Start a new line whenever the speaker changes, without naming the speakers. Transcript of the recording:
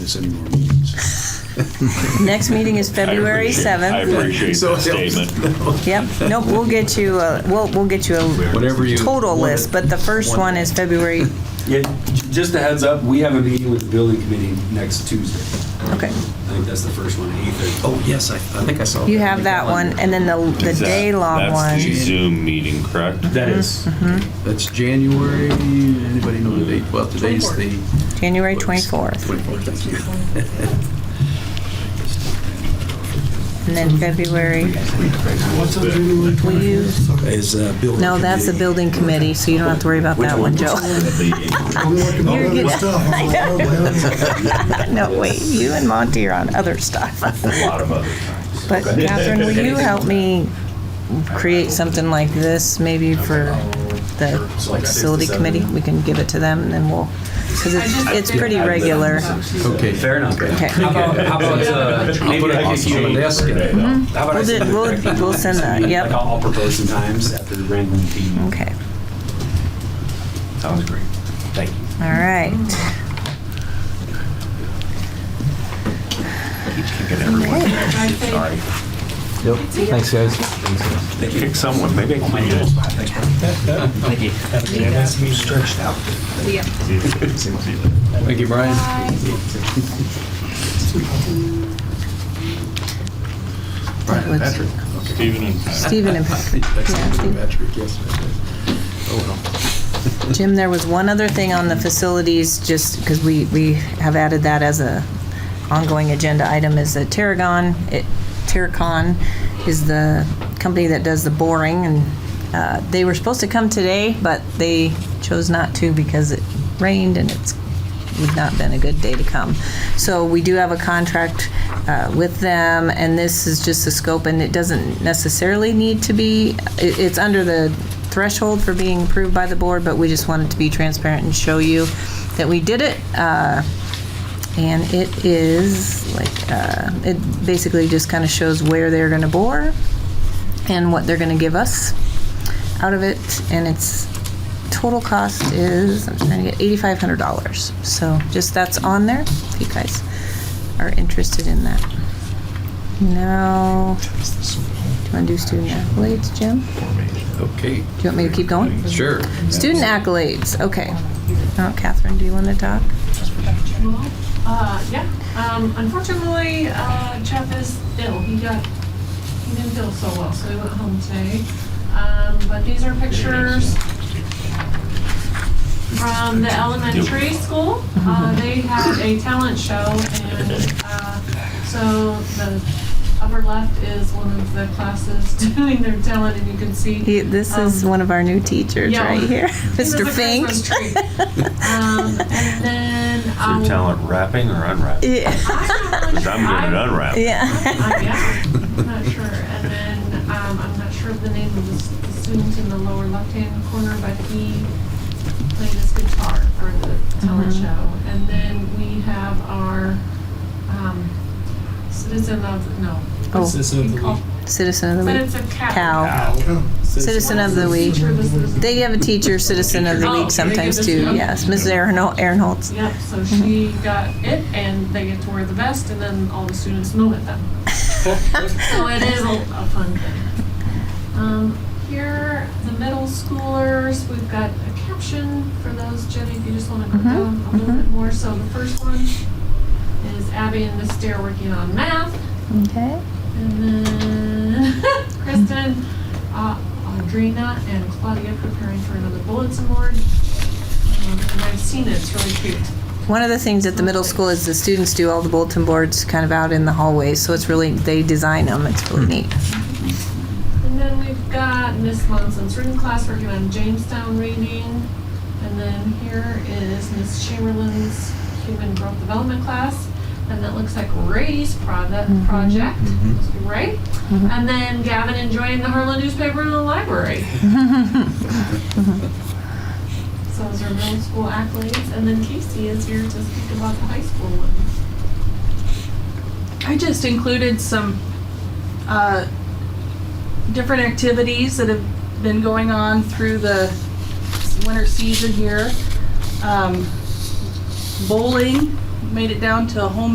miss any more meetings.
Next meeting is February
appreciate- I
7th.
appreciate
So-
that statement.
Yep, nope, we'll get you, a- we'll, we'll get you a
Whatever you.
total list, but the first one is February,
Yeah, j- just a heads up, we have a meeting with the building committee next Tuesday.
okay.
I think that's the first one, eighth.
Oh, yes, I, I think I saw.
You have that one, and then the, the
Is that-
day-long one.
That's the Zoom meeting, correct?
That is.
Mm-hmm.
That's January, anybody know the date? Well, today's the.
January 24th,
24th.
and then February, will you,
Is uh, building.
no, that's the building committee, so you don't have to worry about that one, Joe.
I'm working on
You're
other
good.
stuff. I'm like, oh, well,
No, wait, you and Monty are on other stuff.
A lot of other times.
But Catherine, will you help me create something like this, maybe for the facility committee? We can give it to them, and then we'll, because it's, it's pretty regular.
Okay.
Fair enough.
Okay.
How about, how about, uh,
I'll put
maybe
it
I
on
could give
the
you, Mm-hmm.
desk. and-
how about I
We'll
send
do-
you
we'll-
a direct
we'll
email?
send that, yep.
Like, I'll I'll propose some times after the random team.
Okay,
Sounds great. Thank you.
all right.
Sorry.
Thanks, guys.
Pick someone, maybe I can be it.
Thank you, Brian.
That was
Stephen and Pat.
Stephen and Patrick. Yeah, Stephen.
Patrick, yes. Oh, well.
Jim, there was one other thing on the facilities, just because we, we have added that as a ongoing agenda item, is that Terragon, it- Terracon is the company that does the boring, and uh, they were supposed to come today, but they chose not to because it rained and it's would not been a good day to come. So we do have a contract uh, with them, and this is just the scope, and it doesn't necessarily need to be, it- it's under the threshold for being approved by the board, but we just wanted to be transparent and show you that we did it. Uh, And it is like, uh, it basically just kind of shows where they're going to bore and what they're going to give us out of it, and its total cost is, I'm trying to get eighty-five hundred dollars. So just that's on there, if you guys are interested in that. Now, do you want to do student accolades, Jim? Do
Okay,
you want me to keep going?
sure.
Student accolades, okay. Oh, Catherine, do you want to talk?
Uh, yeah, um, unfortunately, uh, Jeff is ill. He got, he didn't feel so well, so he went home today. Um, but these are pictures from the elementary school. Uh, they had a talent show and, uh, so the upper left is one of the classes doing their talent and you can see.
He- This is
um,
one of our new teachers
yeah.
right here,
he was a
Mr. Fink.
Christmas tree. Um, and then,
Your
um,
talent wrapping or unwrapping?
Yeah,
I'm
Because I'm good at unwrapping.
yeah.
Uh, yeah, I'm not sure. And then, um, I'm not sure of the name of the s- the student in the lower left-hand corner, but he played his guitar for the talent
Mm-hmm.
show. And then we have our, um, citizen of, no.
Oh,
we call-
citizen of the
But
week,
it's a cow.
cow. Citizen of the week.
Teacher of the citizen.
They have a teacher citizen of the
Oh,
week
okay.
sometimes too, yes, Mrs. Aaron- Aaronholtz.
Yep, so she got it and they get to wear the vest and then all the students know it then. So it is a a fun thing. Um, Here, the middle schoolers, we've got a caption for those, Jenny, if you just want to go down a little bit more. So the first one is Abby and Miss Dare working on math.
Okay.
And then Kristen, uh, Audrina, and Claudia preparing for another bulletin board. Um, And I've seen it, it's really cute.
One of the things at the middle school is the students do all the bulletin boards kind of out in the hallways, so it's really, they design them, it's really neat.
And then we've got Miss Monson's written class working on Jamestown reading. And then here is Miss Chamberlain's human growth development class. And that looks like Ray's product, project, right? And then Gavin enjoying the Harlan newspaper in the library. So those are middle school accolades. And then Casey is here to speak about the high school one.
I just included some uh, different activities that have been going on through the winter season here. Um, bowling
made it down to home